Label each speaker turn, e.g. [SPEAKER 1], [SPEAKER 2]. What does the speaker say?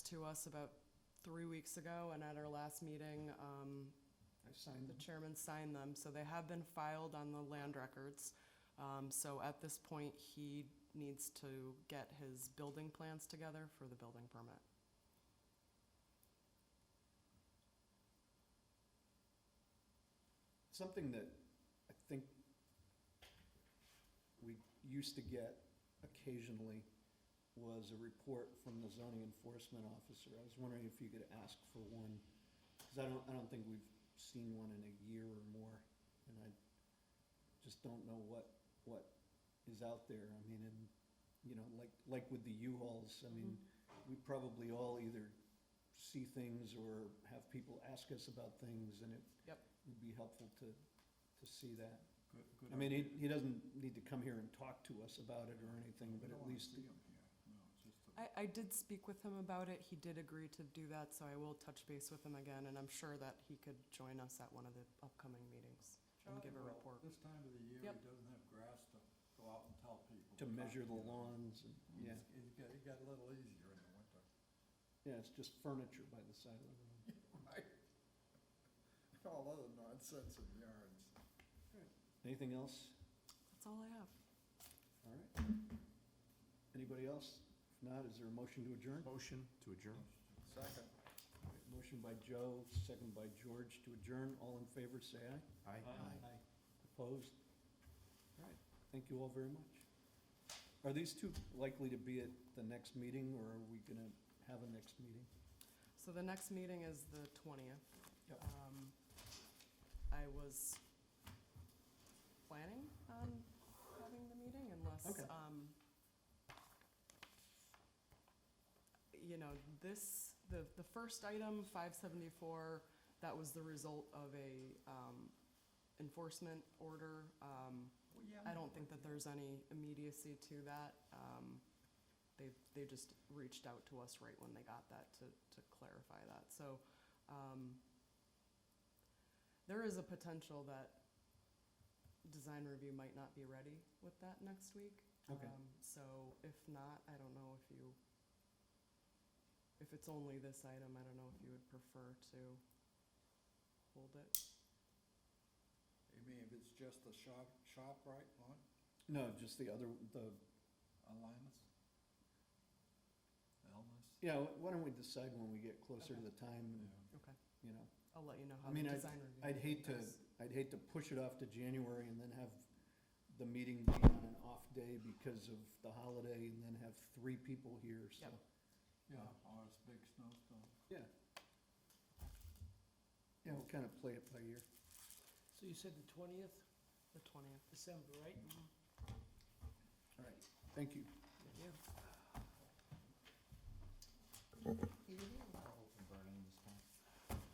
[SPEAKER 1] to us about three weeks ago, and at our last meeting, um,
[SPEAKER 2] I signed
[SPEAKER 1] the
[SPEAKER 2] the,
[SPEAKER 1] chairman signed them, so they have been filed on the land records. Um, So at this point, he needs to get his building plans together for the building permit.
[SPEAKER 2] something that I think we used to get occasionally was a report from the zoning enforcement officer. I was wondering if you could ask for one, because I don't, I don't think we've seen one in a year or more. And I just don't know what, what is out there. I mean, and, you know, like, like with the U-Hauls, I mean, we probably all either see things or have people ask us about things, and it
[SPEAKER 1] Yep.
[SPEAKER 2] would be helpful to, to see that.
[SPEAKER 3] Good, good.
[SPEAKER 2] I mean, he, he doesn't need to come here and talk to us about it or anything, but at least,
[SPEAKER 3] We don't wanna see 'em here. No, it's just a-
[SPEAKER 1] I, I did speak with him about it. He did agree to do that, so I will touch base with him again, and I'm sure that he could join us at one of the upcoming meetings and
[SPEAKER 3] Charlie
[SPEAKER 1] give a
[SPEAKER 3] will.
[SPEAKER 1] report.
[SPEAKER 3] This time of the year, he
[SPEAKER 1] Yep.
[SPEAKER 3] doesn't have grass to go out and tell people.
[SPEAKER 2] to
[SPEAKER 3] cut,
[SPEAKER 2] measure the
[SPEAKER 3] you know.
[SPEAKER 2] lawns, and, yeah,
[SPEAKER 3] It's- It got, it got a little easier in the winter.
[SPEAKER 2] yeah, it's just furniture by the side of the room.
[SPEAKER 3] Right. All other nonsense in yards.
[SPEAKER 2] Anything else?
[SPEAKER 1] That's all I have.
[SPEAKER 2] All right. Anybody else? If not, is there a motion to adjourn?
[SPEAKER 4] Motion to adjourn.
[SPEAKER 3] Second.
[SPEAKER 2] Motion by Joe, second by George to adjourn. All in favor, say aye.
[SPEAKER 4] Aye.
[SPEAKER 2] Aye. Opposed? All right, thank you all very much. Are these two likely to be at the next meeting, or are we gonna have a next meeting?
[SPEAKER 1] So the next meeting is the twentieth.
[SPEAKER 2] Yep.
[SPEAKER 1] Um, I was planning on having the meeting unless,
[SPEAKER 2] Okay.
[SPEAKER 1] um, you know, this, the, the first item, five seventy-four, that was the result of a, um, enforcement order. Um,
[SPEAKER 3] Well, yeah,
[SPEAKER 1] I
[SPEAKER 3] no,
[SPEAKER 1] don't think that there's any immediacy to that. Um, They, they just reached out to us right when they got that to, to clarify that. So um, there is a potential that design review might not be ready with that next week.
[SPEAKER 2] Okay.
[SPEAKER 1] Um, So if not, I don't know if you, if it's only this item, I don't know if you would prefer to hold it.
[SPEAKER 3] You mean if it's just the shop, shop right line,
[SPEAKER 2] No, just the other, the,
[SPEAKER 3] alignments? Elmas?
[SPEAKER 2] yeah, why don't we decide when we get closer to the time, and,
[SPEAKER 1] Okay,
[SPEAKER 2] you know?
[SPEAKER 1] I'll let you know
[SPEAKER 2] I
[SPEAKER 1] how the
[SPEAKER 2] mean, I'd-
[SPEAKER 1] design review.
[SPEAKER 2] I'd hate to,
[SPEAKER 1] goes.
[SPEAKER 2] I'd hate to push it off to January and then have the meeting be on an off day because of the holiday, and then have three people here, so.
[SPEAKER 1] Yep.
[SPEAKER 3] Yeah, or it's big snowstorm.
[SPEAKER 2] Yeah. Yeah, we'll kind of play it by ear.
[SPEAKER 5] So you said the twentieth,
[SPEAKER 1] The twentieth.
[SPEAKER 5] December, right?
[SPEAKER 2] All right, thank you.
[SPEAKER 5] Yeah.